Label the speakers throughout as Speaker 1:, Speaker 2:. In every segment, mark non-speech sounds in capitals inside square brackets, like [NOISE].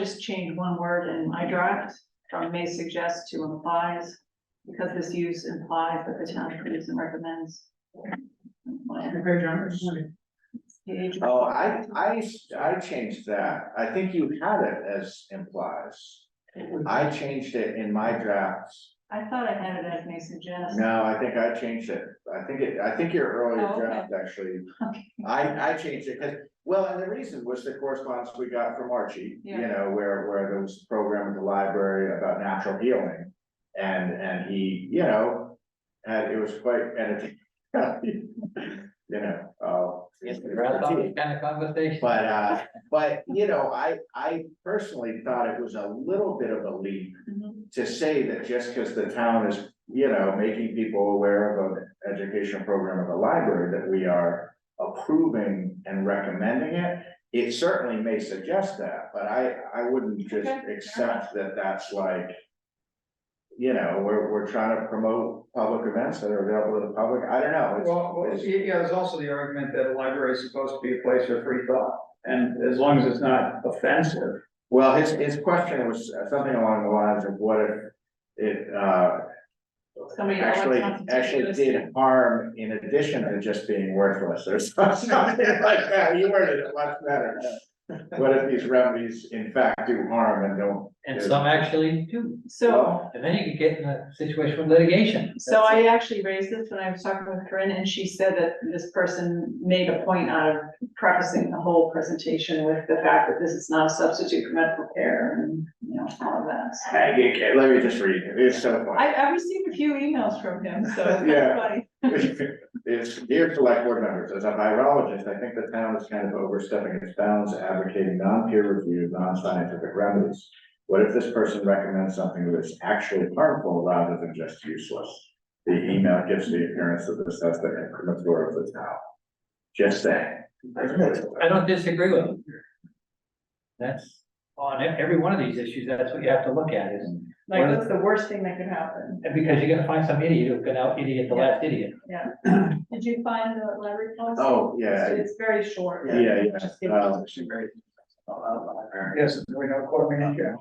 Speaker 1: just change one word in my draft from may suggest to implies. Because this use implies that the town approves and recommends. Page.
Speaker 2: Oh, I, I, I changed that. I think you had it as implies. I changed it in my drafts.
Speaker 1: I thought I had it as may suggest.
Speaker 2: No, I think I changed it. I think it, I think your earlier
Speaker 1: Oh, okay.
Speaker 2: draft actually.
Speaker 1: Okay.
Speaker 2: I, I changed it, because well, and the reason was the correspondence we got from Archie, you
Speaker 1: Yeah.
Speaker 2: know, where, where there was a program at the library about natural healing. And, and he, you know, and it was quite, and it, [LAUGHS] you know, uh.
Speaker 3: Yes, the grandfather kind of conversation.
Speaker 2: But, uh, but, you know, I, I personally thought it was a little bit of a leap
Speaker 1: Mhm.
Speaker 2: to say that just because the town is, you know, making people aware of an educational program of the library, that we are approving and recommending it. It certainly may suggest that, but I, I wouldn't just
Speaker 1: Okay, fair
Speaker 2: accept that that's like, you know, we're, we're trying to promote public events that are available to the public. I don't know. It's-
Speaker 4: Well, well,
Speaker 2: it's-
Speaker 4: yeah, there's also the argument that a library is supposed to be a place for free thought, and as long as it's not offensive.
Speaker 2: Well, his, his question was uh, something along the lines of what if it, uh,
Speaker 1: Somebody else
Speaker 2: actually,
Speaker 1: wants to do
Speaker 2: actually
Speaker 1: this.
Speaker 2: did harm in addition to just being worthless or [LAUGHS] something like that. You worded it much better. What if these remedies in fact do harm and don't?
Speaker 3: And some actually do,
Speaker 1: So,
Speaker 2: Well,
Speaker 3: and then you could get in a situation of litigation.
Speaker 1: so I actually raised this when I was talking with Corinne and she said that this person made a point out of prefacing the whole presentation with the fact that this is not a substitute for medical care and, you know, all of that. So
Speaker 2: I get- okay, let me just read it. It's so funny.
Speaker 1: I, I received a few emails from him, so it's
Speaker 2: Yeah.
Speaker 1: funny.
Speaker 2: It's dear select board members, as a virologist, I think the town is kind of overstepping its bounds advocating non-peer reviewed, non-scientific remedies. What if this person recommends something that is actually harmful rather than just useless? The email gives the appearance of this as the incriminator of the town. Just saying.
Speaker 3: I don't disagree with you. That's, on e- every one of these issues, that's what you have to look at is,
Speaker 1: Like, what's the worst thing that could happen?
Speaker 3: and because you're gonna find some idiot who can out idiot the last idiot.
Speaker 1: Did you find the library policy?
Speaker 2: Oh, yeah,
Speaker 1: It's very short.
Speaker 2: yeah, yeah.
Speaker 1: Just give
Speaker 2: Um,
Speaker 1: us-
Speaker 4: Yes, we know court manager.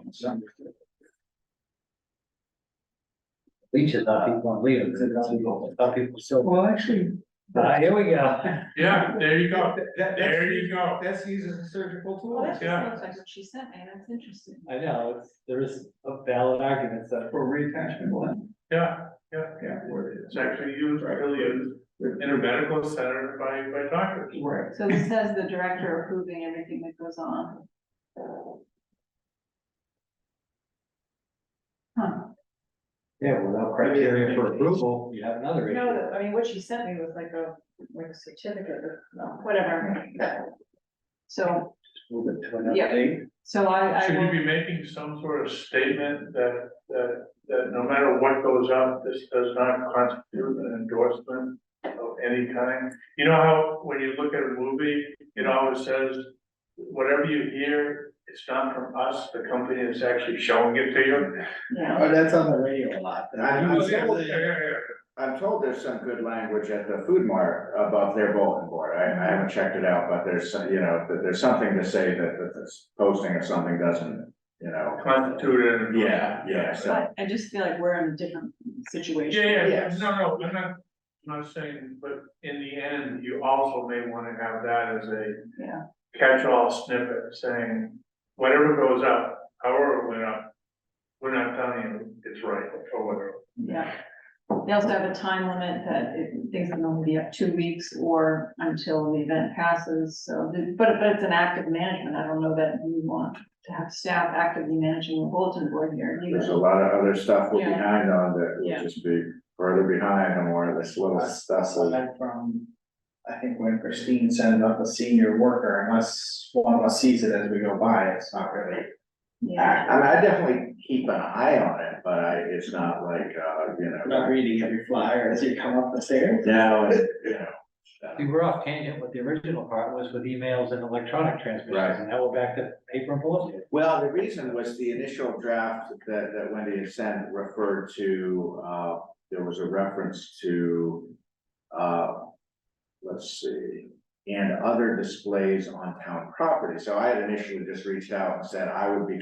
Speaker 3: Leeches on people and leave them, some people, some people still. Well, actually. Ah, here we go.
Speaker 5: Yeah, there you go,
Speaker 4: That,
Speaker 5: there you go.
Speaker 4: That's used as a surgical
Speaker 1: Well,
Speaker 4: tool.
Speaker 1: that just
Speaker 5: Yeah.
Speaker 1: looks like what she sent me, that's interesting.
Speaker 3: [LAUGHS] I know, it's, there is a valid argument, so.
Speaker 4: For retention, well,
Speaker 5: Yeah, yeah,
Speaker 4: yeah, where it is.
Speaker 5: it's actually used, really used in a medical center by, by doctors.
Speaker 4: Right.
Speaker 1: So this has the director approving everything that goes on. Huh,
Speaker 3: Yeah, without criteria for approval, you have another
Speaker 1: you
Speaker 3: issue.
Speaker 1: know, the- I mean, what she sent me was like a, like a certificate or whatever. So,
Speaker 3: Move it to another
Speaker 1: Yeah.
Speaker 3: date.
Speaker 1: so I, I
Speaker 5: Should you
Speaker 1: will,
Speaker 5: be making some sort of statement that, that, that no matter what goes out, this does not constitute an endorsement of any kind? You know how, when you look at a movie, it always says, whatever you hear, it's not from us, the company is actually showing it to you.
Speaker 1: yeah,
Speaker 2: Oh, that's on the radio a lot. And I- I'm told-
Speaker 5: Yeah, yeah, yeah.
Speaker 2: I'm told there's some good language at the food mart above their bulletin board. I, I haven't checked it out, but there's, some- you know, that there's something to say that, that this posting of something doesn't, you know.
Speaker 5: Constitute an endorsement.
Speaker 2: Yeah, yeah, so.
Speaker 1: but I just feel like we're in a different situation.
Speaker 5: Yeah, yeah,
Speaker 2: Yes.
Speaker 5: no, no, I'm not, I'm not saying, but in the end, you also may wanna have that as a
Speaker 1: Yeah.
Speaker 5: catch-all snippet saying, whatever goes up, however it went up, we're not telling you it's right or whatever.
Speaker 1: Yeah. They also have a time limit that it- things can only be up two weeks or until the event passes, so, the- but, but it's an active management, I don't know that we want to have staff actively managing the bulletin board here.
Speaker 2: There's a lot of other stuff we're
Speaker 1: Yeah.
Speaker 2: behind on that
Speaker 1: Yeah.
Speaker 2: will just be further behind on more of this little stuff. like-
Speaker 6: Aside from, I think when Christine sent it up a senior worker, unless one of us sees it as we go by, it's not really.
Speaker 1: Yeah,
Speaker 2: I mean, I definitely keep an eye on it, but I, it's not like, uh, you
Speaker 6: I'm
Speaker 2: know,
Speaker 6: not reading every flyer as you come up the stairs.
Speaker 2: now, it's, you know.
Speaker 3: We were off tangent with the original part was with emails and electronic
Speaker 2: Right.
Speaker 3: transmissions, and now we're back to paper and bulletin.
Speaker 2: Well, the reason was the initial draft that, that Wendy had sent referred to, uh, there was a reference to, uh, let's see, and other displays on town property. So I had initially just reached out and said I would be